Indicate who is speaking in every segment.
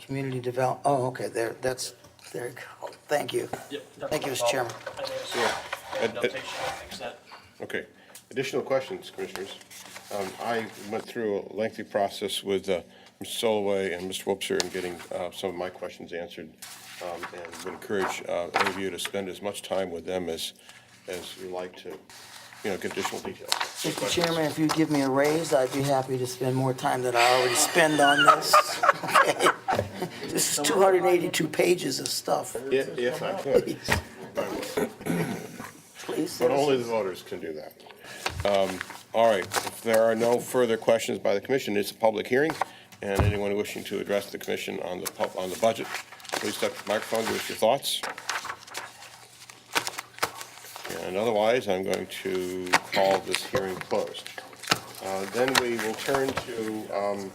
Speaker 1: Community develop, oh, okay, there, that's, there you go. Thank you.
Speaker 2: Yep. that's
Speaker 1: Thank you,
Speaker 2: no
Speaker 1: Mr. Chairman.
Speaker 2: problem. I think it's-
Speaker 3: Yeah.
Speaker 2: and
Speaker 3: And- and-
Speaker 2: notation, I think it's that.
Speaker 3: Okay. Additional questions, Commissioners? Um, I went through a lengthy process with uh, Mr. Soloway and Mr. Wobser in getting uh, some of my questions answered, um, and would encourage uh, any of you to spend as much time with them as, as you like to, you know, get additional details.
Speaker 1: Mr. Chairman, if you give me a raise, I'd be happy to spend more time than I already spend on this. Okay. This is 282 pages of stuff.
Speaker 3: Yeah, Yes, I could. I would.
Speaker 1: Please.
Speaker 3: But only the voters can do that. Um, All right, if there are no further questions by the commission, it's a public hearing, and anyone wishing to address the commission on the, pub- on the budget, please step to the microphone, give us your thoughts. And otherwise, I'm going to call this hearing closed. Uh, Then we will turn to um,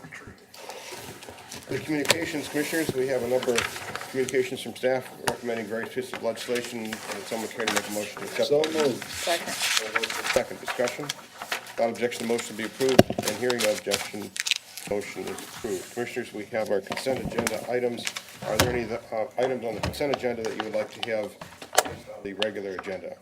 Speaker 3: the communications commissioners. We have a number of communications from staff recommending various pieces of legislation. Would someone care to make a motion to accept?
Speaker 4: So moved.
Speaker 5: Second.
Speaker 3: Second discussion. Without objection, the motion be approved, and hearing no objection, motion is approved. Commissioners, we have our consent agenda items. Are there any uh, items on the consent agenda that you would like to have on the regular agenda?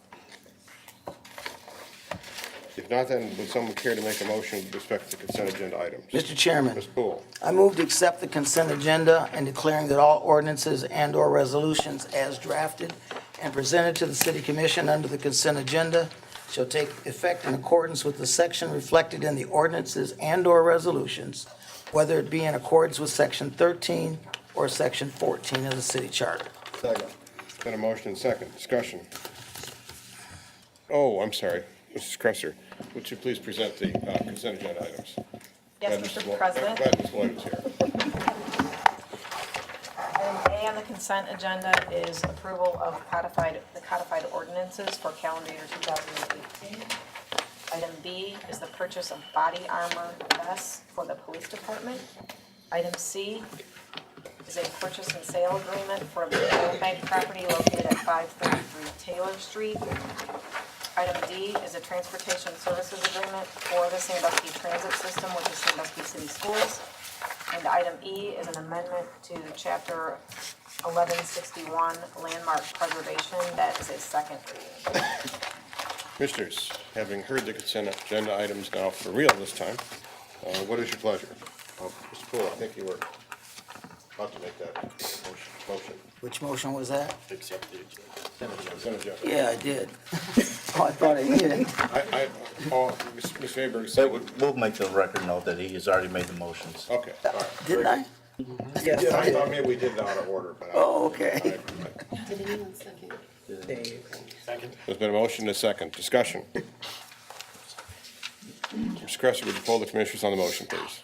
Speaker 3: If not, then would someone care to make a motion with respect to consent agenda items?
Speaker 1: Mr. Chairman,
Speaker 3: Ms. Poole,
Speaker 1: I move to accept the consent agenda and declaring that all ordinances and/or resolutions as drafted and presented to the city commission under the consent agenda shall take effect in accordance with the section reflected in the ordinances and/or resolutions, whether it be in accordance with section 13 or section 14 of the city charter.
Speaker 4: Second.
Speaker 3: then a motion and second, discussion. Oh, I'm sorry, Mrs. Cresser, would you please present the uh, consent agenda items?
Speaker 5: Yes,
Speaker 3: Glad Mrs.
Speaker 5: Mr.
Speaker 3: Lloyd-
Speaker 5: President.
Speaker 3: Glad Ms. Lloyd is here.
Speaker 5: Item A on the consent agenda is approval of codified, the codified ordinances for calendar year 2018. Item B is the purchase of body armor vests for the police department. Item C is a purchase and sale agreement for the Bank Bank property located at 533 Taylor Street. Item D is a transportation services agreement for the Sandusky Transit System with the Sandusky City Schools. And item E is an amendment to chapter eleven sixty-one landmark preservation, that is a second reading.
Speaker 3: Commissioners, having heard the consent agenda items now for real this time, uh, what is your pleasure? Uh, Mr. Poole, I think you were about to make that motion- motion.
Speaker 1: Which motion was that?
Speaker 3: Accept the consent agenda.
Speaker 1: Yeah, I did. Oh, I thought I did.
Speaker 3: I, I, oh, Ms. Ms. Faber
Speaker 4: That
Speaker 3: said,
Speaker 4: would- We'll make the record note that he has already made the motions.
Speaker 3: okay, all right.
Speaker 1: Didn't I? Yes, I
Speaker 3: I
Speaker 1: did.
Speaker 3: thought maybe we did it out of order, but. I-
Speaker 1: Oh, okay.
Speaker 3: I- I-
Speaker 6: Did anyone second?
Speaker 3: There's been a motion and a second. Discussion. Mr. Cresser, would you poll the commissioners on the motion, please?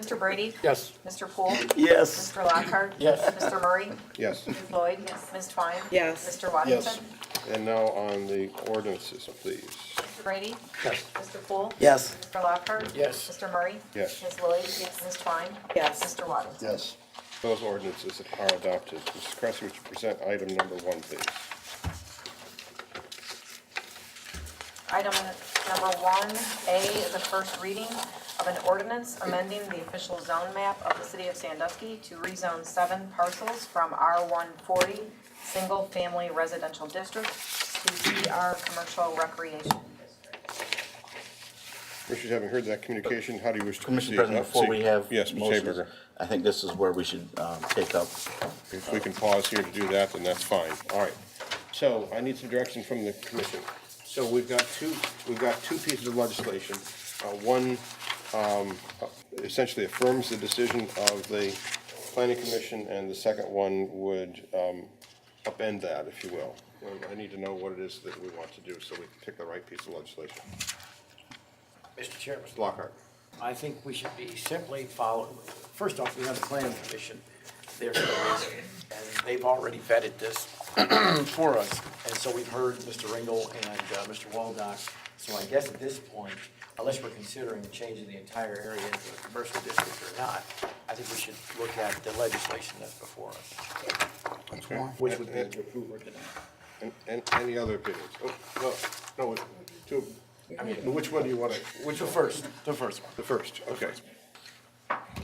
Speaker 5: Mr. Brady?
Speaker 4: Yes.
Speaker 5: Mr. Poole?
Speaker 1: Yes.
Speaker 5: Mr. Lockhart?
Speaker 4: Yes.
Speaker 5: Mr. Murray?
Speaker 3: Yes.
Speaker 5: Ms. Lloyd? Yes. Ms. Twine?
Speaker 6: Yes.
Speaker 5: Mr. Waddington?
Speaker 3: And now on the ordinances, please.
Speaker 5: Mr. Brady? Yes. Mr. Poole?
Speaker 1: Yes.
Speaker 5: Mr. Lockhart? Yes. Mr. Murray?
Speaker 3: Yes.
Speaker 5: Ms. Lloyd? Yes. Ms. Twine?
Speaker 6: Yes.
Speaker 5: Mr. Waddington?
Speaker 4: Yes.
Speaker 3: Those ordinances are adopted. Mrs. Cresser, would you present item number one, please?
Speaker 5: Item number one, A, is the first reading of an ordinance amending the official zone map of the city of Sandusky to rezone seven parcels from R140 Single Family Residential District to CR Commercial Recreation District.
Speaker 3: Commissioners, having heard that communication, how do you wish to proceed?
Speaker 4: Commissioner President,
Speaker 3: Uh,
Speaker 4: before
Speaker 3: see-
Speaker 4: we have
Speaker 3: Yes, Ms.
Speaker 4: motions,
Speaker 3: Haberger.
Speaker 4: I think this is where we should um, take up.
Speaker 3: If we can pause here to do that, then that's fine. All right. So I need some direction from the commission. So we've got two, we've got two pieces of legislation. Uh, One um, essentially affirms the decision of the planning commission, and the second one would um, upend that, if you will. Um, I need to know what it is that we want to do so we can pick the right piece of legislation.
Speaker 7: Mr. Chairman,
Speaker 3: Mr. Lockhart.
Speaker 7: I think we should be simply following, first off, we have the planning commission, they're, and they've already vetted this for us, and so we've heard Mr. Ringel and uh, Mr. Waldock. So I guess at this point, unless we're considering changing the entire area into a commercial district or not, I think we should look at the legislation that's before us, which would be to approve or deny.
Speaker 3: And, and any other opinions? Oh, no, no, to, I mean, which one do you want to, which
Speaker 7: The first, the first one.
Speaker 3: The first, okay.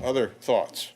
Speaker 3: Other thoughts?